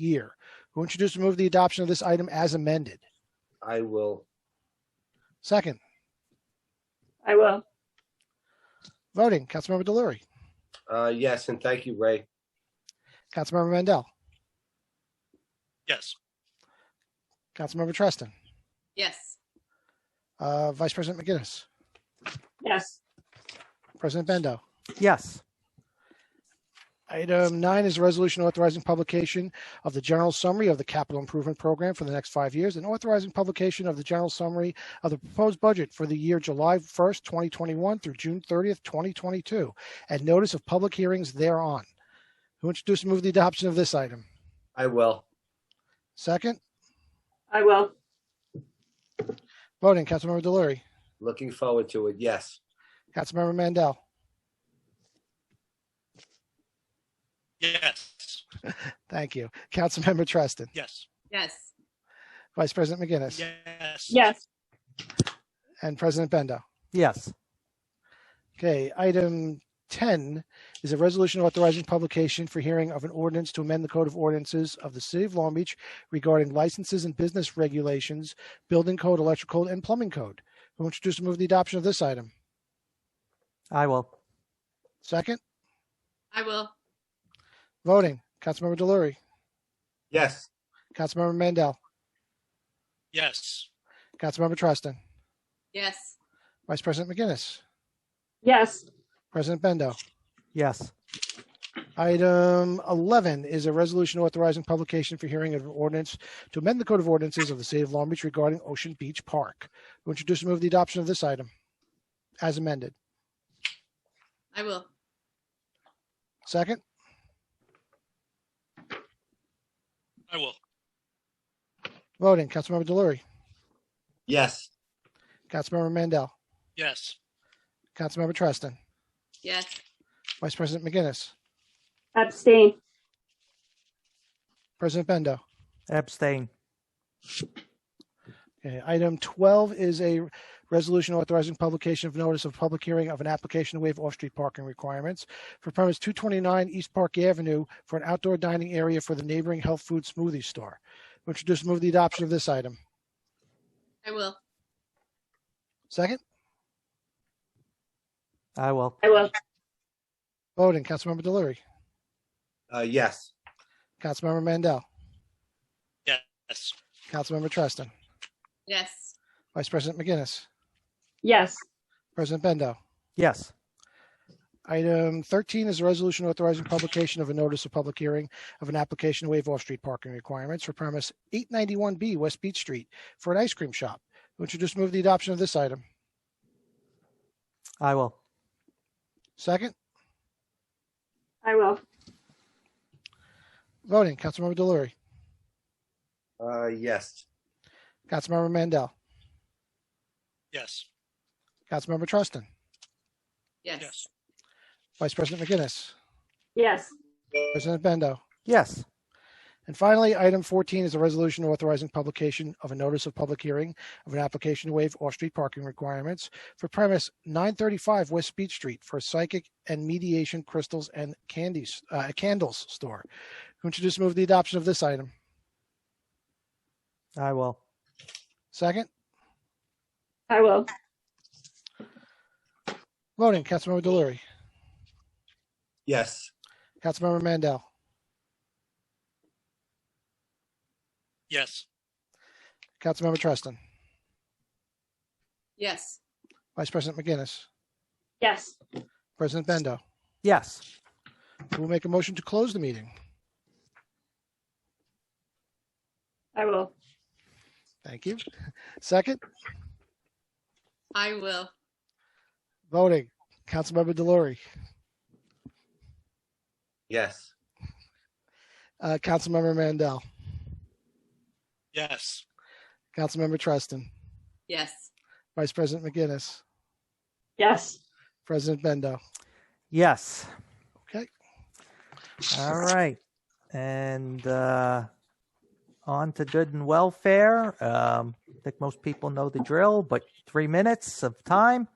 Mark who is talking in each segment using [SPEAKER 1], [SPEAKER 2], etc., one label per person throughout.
[SPEAKER 1] year. Who introduced and move the adoption of this item as amended?
[SPEAKER 2] I will,
[SPEAKER 1] Second,
[SPEAKER 3] I will.
[SPEAKER 1] voting, Councilmember Delory,
[SPEAKER 2] uh, yes, and thank you, Ray.
[SPEAKER 1] Councilmember Mandel,
[SPEAKER 4] yes,
[SPEAKER 1] Councilmember Treston,
[SPEAKER 5] yes,
[SPEAKER 1] uh, Vice President McGinnis,
[SPEAKER 3] Yes.
[SPEAKER 1] President Bendo.
[SPEAKER 6] yes,
[SPEAKER 1] Item nine is a resolution authorizing publication of the general summary of the capital improvement program for the next five years and authorizing publication of the general summary of the proposed budget for the year July 1st, 2021 through June 30th, 2022, and notice of public hearings thereon. Who introduced and moved the adoption of this item?
[SPEAKER 2] I will,
[SPEAKER 1] Second,
[SPEAKER 3] I will.
[SPEAKER 1] voting, Councilmember Delory,
[SPEAKER 2] looking forward to it, yes.
[SPEAKER 1] Councilmember Mandel,
[SPEAKER 4] yes,
[SPEAKER 1] thank you, Councilmember Treston,
[SPEAKER 4] yes,
[SPEAKER 5] yes,
[SPEAKER 1] Vice President McGinnis,
[SPEAKER 4] yes.
[SPEAKER 3] Yes.
[SPEAKER 1] and President Bendo.
[SPEAKER 6] yes,
[SPEAKER 1] Okay, item 10 is a resolution authorizing publication for hearing of an ordinance to amend the Code of Ordinances of the City of Long Beach regarding licenses and business regulations, building code, electrical, and plumbing code. Who introduced and move the adoption of this item?
[SPEAKER 6] I will.
[SPEAKER 1] Second,
[SPEAKER 5] I will,
[SPEAKER 1] voting, Councilmember Delory,
[SPEAKER 2] Yes,
[SPEAKER 1] Councilmember Mandel,
[SPEAKER 4] Yes,
[SPEAKER 1] Councilmember Treston,
[SPEAKER 5] yes,
[SPEAKER 1] Vice President McGinnis,
[SPEAKER 3] Yes.
[SPEAKER 1] President Bendo.
[SPEAKER 6] Yes,
[SPEAKER 1] Item 11 is a resolution authorizing publication for hearing of an ordinance to amend the Code of Ordinances of the City of Long Beach regarding Ocean Beach Park. Who introduce and move the adoption of this item as amended?
[SPEAKER 5] I will,
[SPEAKER 1] Second,
[SPEAKER 4] I will.
[SPEAKER 1] voting, Councilmember Delory,
[SPEAKER 2] yes,
[SPEAKER 1] Councilmember Mandel,
[SPEAKER 4] Yes,
[SPEAKER 1] Councilmember Treston,
[SPEAKER 5] yes,
[SPEAKER 1] Vice President McGinnis,
[SPEAKER 3] Abstain.
[SPEAKER 1] President Bendo.
[SPEAKER 6] abstain.
[SPEAKER 1] Okay, Item 12 is a resolution authorizing publication of notice of public hearing of an application to waive off-street parking requirements for premise 229 East Park Avenue for an outdoor dining area for the neighboring health food smoothie store. Introduce and move the adoption of this item.
[SPEAKER 5] I will,
[SPEAKER 1] Second,
[SPEAKER 6] I will.
[SPEAKER 3] I will.
[SPEAKER 1] voting, Councilmember Delory,
[SPEAKER 2] uh, yes,
[SPEAKER 1] Councilmember Mandel,
[SPEAKER 4] yes,
[SPEAKER 1] Councilmember Treston,
[SPEAKER 5] yes,
[SPEAKER 1] Vice President McGinnis,
[SPEAKER 3] Yes.
[SPEAKER 1] President Bendo.
[SPEAKER 6] Yes,
[SPEAKER 1] Item 13 is a resolution authorizing publication of a notice of public hearing of an application to waive off-street parking requirements for premise 891B West Beach Street for an ice cream shop. Who introduced move the adoption of this item?
[SPEAKER 6] I will.
[SPEAKER 1] Second,
[SPEAKER 3] I will.
[SPEAKER 1] voting, Councilmember Delory,
[SPEAKER 2] uh, yes,
[SPEAKER 1] Councilmember Mandel,
[SPEAKER 4] yes,
[SPEAKER 1] Councilmember Trustin,
[SPEAKER 5] yes,
[SPEAKER 4] yes,
[SPEAKER 1] Vice President McGinnis,
[SPEAKER 3] Yes.
[SPEAKER 1] President Bendo.
[SPEAKER 6] Yes,
[SPEAKER 1] And finally, item 14 is a resolution authorizing publication of a notice of public hearing of an application to waive off-street parking requirements for premise 935 West Beach Street for psychic and mediation crystals and candies, uh, candles store. Who introduced move the adoption of this item?
[SPEAKER 6] I will.
[SPEAKER 1] Second,
[SPEAKER 3] I will.
[SPEAKER 1] voting, Councilmember Delory,
[SPEAKER 2] yes,
[SPEAKER 1] Councilmember Mandel,
[SPEAKER 4] yes,
[SPEAKER 1] Councilmember Treston,
[SPEAKER 5] yes,
[SPEAKER 1] Vice President McGinnis,
[SPEAKER 3] Yes.
[SPEAKER 1] President Bendo.
[SPEAKER 6] Yes,
[SPEAKER 1] Who will make a motion to close the meeting?
[SPEAKER 3] I will.
[SPEAKER 1] Thank you. Second,
[SPEAKER 5] I will,
[SPEAKER 1] voting, Councilmember Delory,
[SPEAKER 2] yes,
[SPEAKER 1] uh, Councilmember Mandel,
[SPEAKER 4] yes,
[SPEAKER 1] Councilmember Treston,
[SPEAKER 5] yes,
[SPEAKER 1] Vice President McGinnis,
[SPEAKER 3] Yes.
[SPEAKER 1] President Bendo.
[SPEAKER 6] yes.
[SPEAKER 1] Okay.
[SPEAKER 6] All right. And uh, on to good and welfare. Um, I think most people know the drill, but three minutes of time.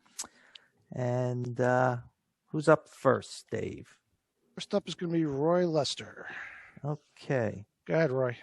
[SPEAKER 6] And uh, who's up first, Dave?
[SPEAKER 1] First up is going to be Roy Lester.
[SPEAKER 6] Okay.
[SPEAKER 1] Go ahead, Roy.